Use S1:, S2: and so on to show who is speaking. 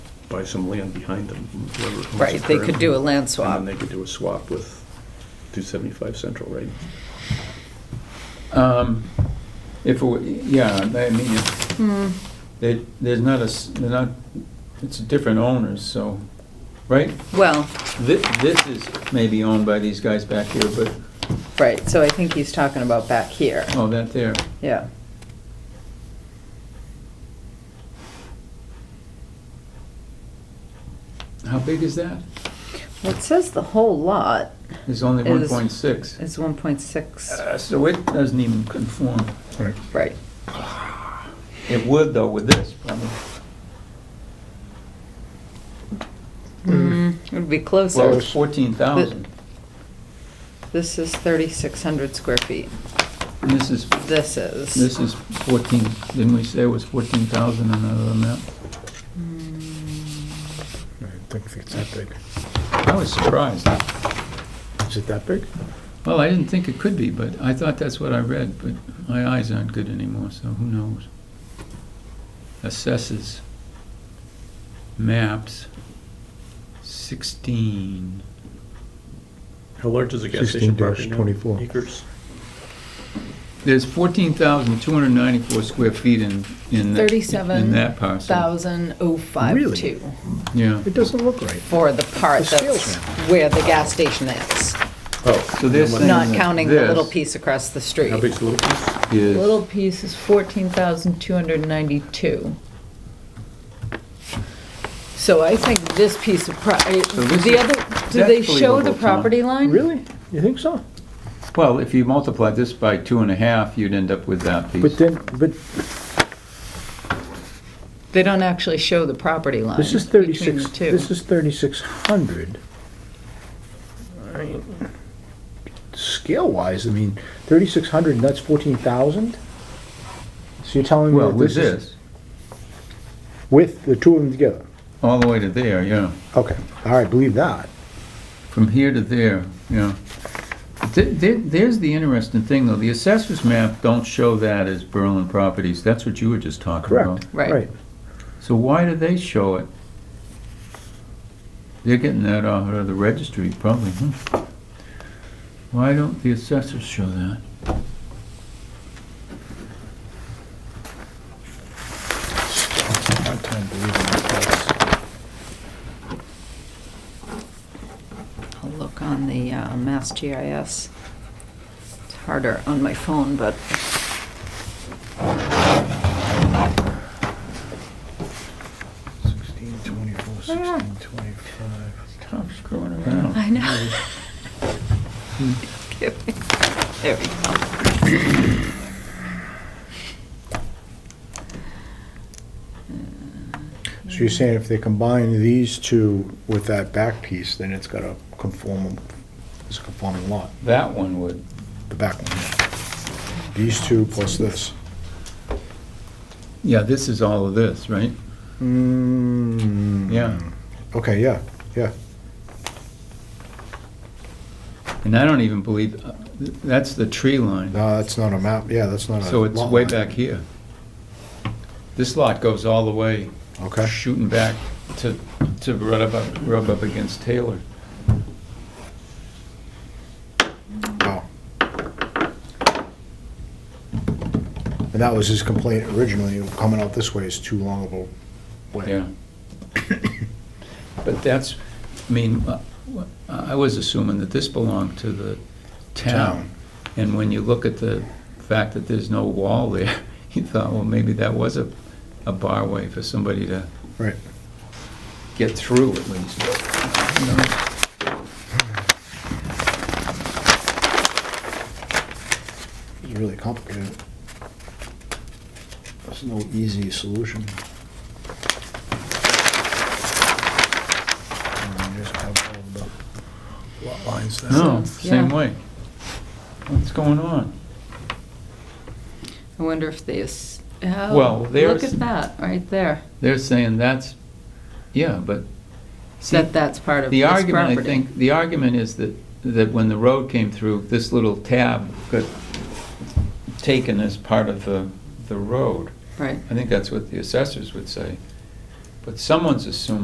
S1: buy some land behind them. whoever owns the
S2: Right, they
S1: current-
S2: could do a land swap.
S1: And then they could do a swap with 275 Central, right?
S3: Um, If, it were- yeah, I mean, if,
S2: Mm,
S3: they, there's not a, s- they're not, it's different owners, so, right?
S2: Well,
S3: This, this is maybe owned by these guys back here, but,
S2: right, so I think he's talking about back here,
S3: oh, that there,
S2: yeah.
S3: how big is that?
S2: Well, It says the whole lot
S3: It's only
S2: It
S3: one
S2: is-
S3: point six. Uh,
S2: is 1.6,
S3: So it doesn't even conform.
S2: right.
S3: It would though with this, probably.
S2: Mm,
S3: Mm-hmm.
S2: It'd be
S3: Well,
S2: closer.
S3: it's fourteen thousand,
S2: This is 3,600 square feet.
S3: and this is,
S2: This is.
S3: this is fourteen, didn't we say it was fourteen thousand and another amount?
S4: I don't think it's that big.
S3: I was surprised.
S4: Is it that big?
S3: Well, I didn't think it could be, but I thought that's what I read, but my eyes aren't good anymore, so who knows? Assesses. Maps. Sixteen.
S1: How large is the gas station property now?
S4: 16-24.
S1: Acres?
S3: There's fourteen thousand two hundred ninety-four square feet in, in. that- In that parcel.
S2: 37,052
S3: Yeah,
S4: It doesn't look right.
S2: for the part
S4: The scale's
S2: that's where the gas station is,
S1: Oh.
S3: so they're
S1: how much-
S3: saying
S2: not
S3: that
S2: counting the little
S3: this
S2: piece across the
S1: How
S2: street.
S1: big's the little piece?
S3: is-
S5: Little piece is fourteen thousand two hundred ninety-two. So I think this piece of pro, I-
S3: this
S5: the
S3: is-
S5: other, do they
S3: that's
S5: show the
S3: believable, Tom.
S5: property line?
S4: Really? You think so?
S3: Well, if you multiply this by two and a half, you'd end up with that piece.
S4: But then, but
S5: They don't actually show the property line
S4: this is
S5: between the
S4: thirty-six,
S5: two.
S4: this is thirty-six hundred. Scale-wise, I mean, thirty-six hundred, and that's fourteen thousand? So you're telling me
S3: Well,
S4: that
S3: with
S4: this is?
S3: this,
S4: With the two of them together?
S3: all the way to there, yeah.
S4: Okay, all right, believe that.
S3: from here to there, you know. Th- there- There's the interesting thing, though, the assessor's map don't show that as Berlin properties, that's what you were just talking about.
S4: Correct.
S2: Right.
S3: So why do they show it? They're getting that out of the registry, probably, hmm. Why don't the assessors show that?
S4: Hard time believing that.
S2: I'll look on the uh, Mass GIS. It's harder on my phone, but
S4: Sixteen twenty-four, sixteen twenty-five.
S3: Stop screwing around.
S2: I know. There we go.
S4: So you're saying if they combine these two with that back piece, then it's got a conform, it's a conforming lot,
S3: That one would,
S4: the back one. These two plus this.
S3: yeah, this is all of this, right?
S4: Mm,
S3: Yeah,
S4: Okay, yeah, yeah.
S3: and I don't even believe, uh, th- that's the tree line.
S4: No, that's not a map, yeah, that's not a.
S3: So it's
S4: lot
S3: way
S4: line.
S3: back here. This lot goes all the way,
S4: Okay,
S3: shooting back to, to rub up, rub up against Taylor.
S4: wow. And that was his complaint originally, coming out this way is too long of a way.
S3: Yeah. But that's, I mean, uh, wha- I was assuming that this belonged to the
S4: Town.
S3: town. And when you look at the fact that there's no wall there, you thought, well, maybe that was a, a bar way for somebody to
S4: Right.
S3: get through at least. You know?
S4: It's really complicated. There's no easy solution. And you just have all the lot lines there.
S3: No,
S2: Sounds-
S3: same
S2: yeah.
S3: way. What's going on?
S2: I wonder if they, is- oh,
S3: Well,
S2: look
S3: there's-
S2: at that, right there.
S3: They're saying that's, yeah, but. see,
S2: That that's part of this
S3: The
S2: property.
S3: argument, I think, the argument is that, that when the road came through, this little tab got taken as part of the, the road.
S2: Right.
S3: I think that's what the assessors would say. But someone's assuming